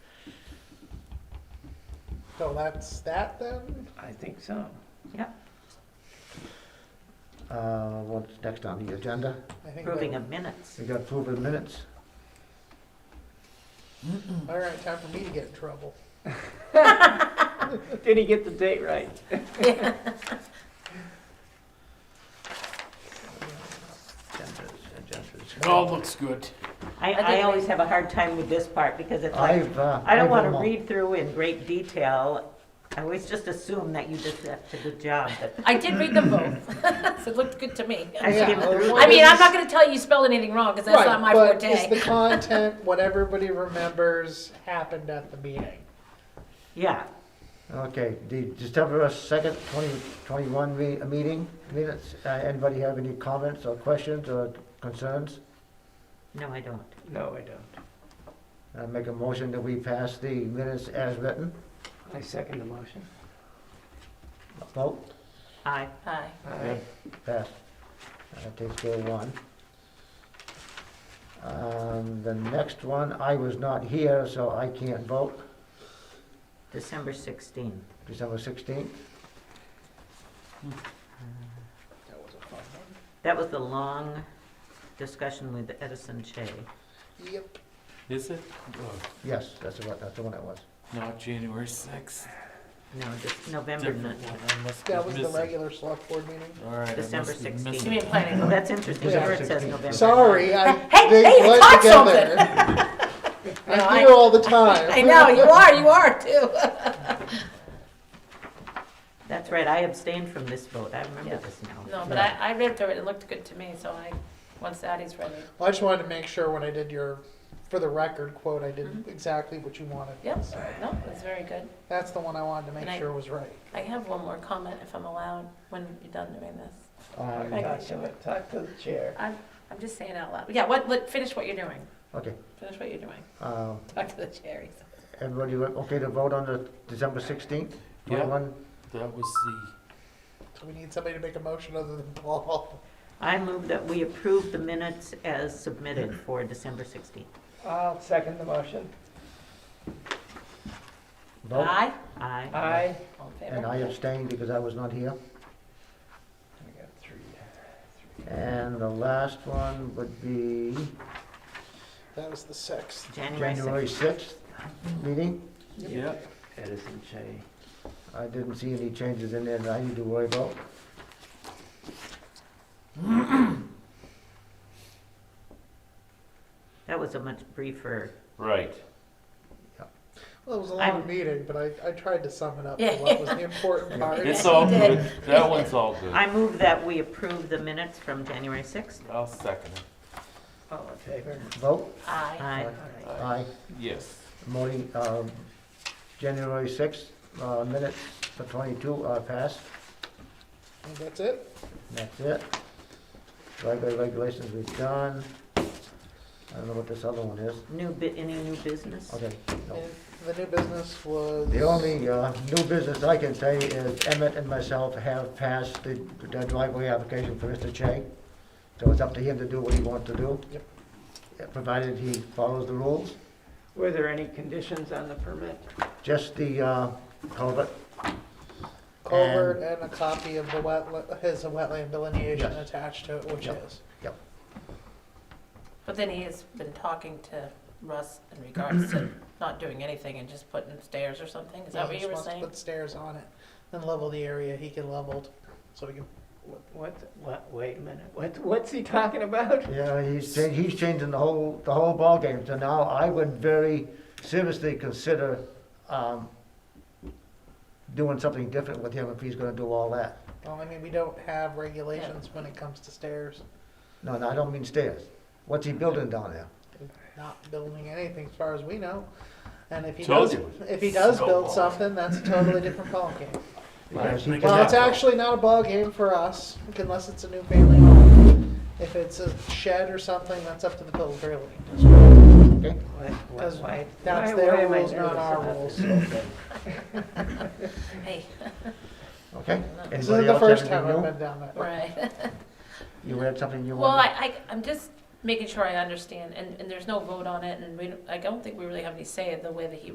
So that's that then? I think so. Yep, Uh, what's next on the agenda? I think that- approving of minutes. We got approving minutes. All right, time for me to get in trouble. Did he get the date right? Agendas, agendas. It all looks good. I, I I think- always have a hard time with this part because it's like, I've, uh, I don't I've want to almo- read through in great detail. I always just assume that you did such a good job, but I did read them both. so it looked good to me. I Yeah, skimmed well, through. what I mean, is- I'm not going to tell you you spelled anything wrong because that's Right, not my but Is the forte. content what everybody remembers happened at the meeting? Yeah, Okay, the December second, twenty twenty-one me- uh, meeting minutes. Uh, anybody have any comments or questions or concerns? no, I don't. No, I don't. I make a motion that we pass the minutes as written. I second the motion. Vote, I, Hi. Aye. pass. That takes care of one. Um, the next one, I was not here, so I can't vote. December 16. December sixteenth. That was a fun one. That was the long discussion with Edison Che. Yep. Is it? Yes, that's the one, that's the one it was. Not January sixth. No, just November Different 9. one. I must be That was the missing. regular select board meeting. All right. I December must be 16th. missing. You mean planning? Oh, that's interesting. Yeah. Here it says November. Sorry, I Hey, they hey, you blend caught together. No, I I- hear all the time. I know, you are, you are too. That's right, I abstained from this vote. I remember Yeah. this now. no, but I, I read through it. It looked good to me. So I, once Addie's ready. Well, I just wanted to make sure when I did your, for the record quote, I did exactly what you wanted. Mm-hmm. Yep. So No, it's very good. That's the one I wanted to make And I- sure was right. I have one more comment if I'm allowed when you're done doing this. Um, Thank you. Talk to it, talk to the chair. I'm, I'm just saying out loud. Yeah, what, let, finish what you're doing. okay, Finish what you're doing. um, Talk to the cherries. everybody, wa- okay to vote on the December sixteenth? Yeah. Twenty-one, That was the. So we need somebody to make a motion other than Paul. I move that we approve the minutes as submitted for December 16th. I'll second the motion. vote, Aye. Aye. Aye. All in and I favor? abstained because I was not here. We got three. And the last one would be That was the sixth. January January 6th. sixth meeting. Yeah. Edison J. I didn't see any changes in there that I need to worry about. That was a much briefer, Right. Well, it was a long I'm- meeting, but I, I tried to sum it up to Yeah. what was the important part. It's Yeah, all you good. did. That one's all good. I move that we approve the minutes from January 6th. I'll second it. All in favor? Vote, Aye. Aye. aye, Yes. morning, um, January sixth, uh, minutes for twenty-two are passed, And that's it. that's it. Library regulations we've done. I don't know what this other one is, New bit, any new business? okay. no. And the new business was. The only uh, new business I can say is Emmett and myself have passed the the driveway application for Mr. Che. So it's up to him to do what he wants to do. Yep. Yeah, Provided he follows the rules. Were there any conditions on the permit? Just the uh, culvert, Culvert and a copy of the wetland, his wetland delineation Yes. attached to it, which Yep. is. But then he has been talking to Russ in regards to not doing anything and just putting stairs or something. Is that He what just you were wants to saying? Put stairs on it, then level the area he can leveled, so he can, What, what, wait a minute, what, what's he talking about? yeah, he's, cha- he's changing the whole, the whole ballgame. So now I would very seriously consider um, doing something different with him if he's gonna do all that. well, I mean, we don't have regulations when it comes to stairs. No, no, I don't mean stairs. What's he building down there? Not building anything as far as we know. And if he Told does, you. if he does build Snowball. something, that's a totally different ballgame. Because he Well, can- it's actually not a ball game for us unless it's a new family home. If it's a shed or something, that's up to the Phillips Trailing District. okay? What- what- Because why- that's why- their why am I rules, not nervous our about rules. this? Hey, Okay. This isn't Anybody the else first have time I've anything been down that road. right. new? You had something you Well, I, wanted? I, I'm just making sure I understand, and, and there's no vote on it, and we, don't- I don't think we really have any say in the way that he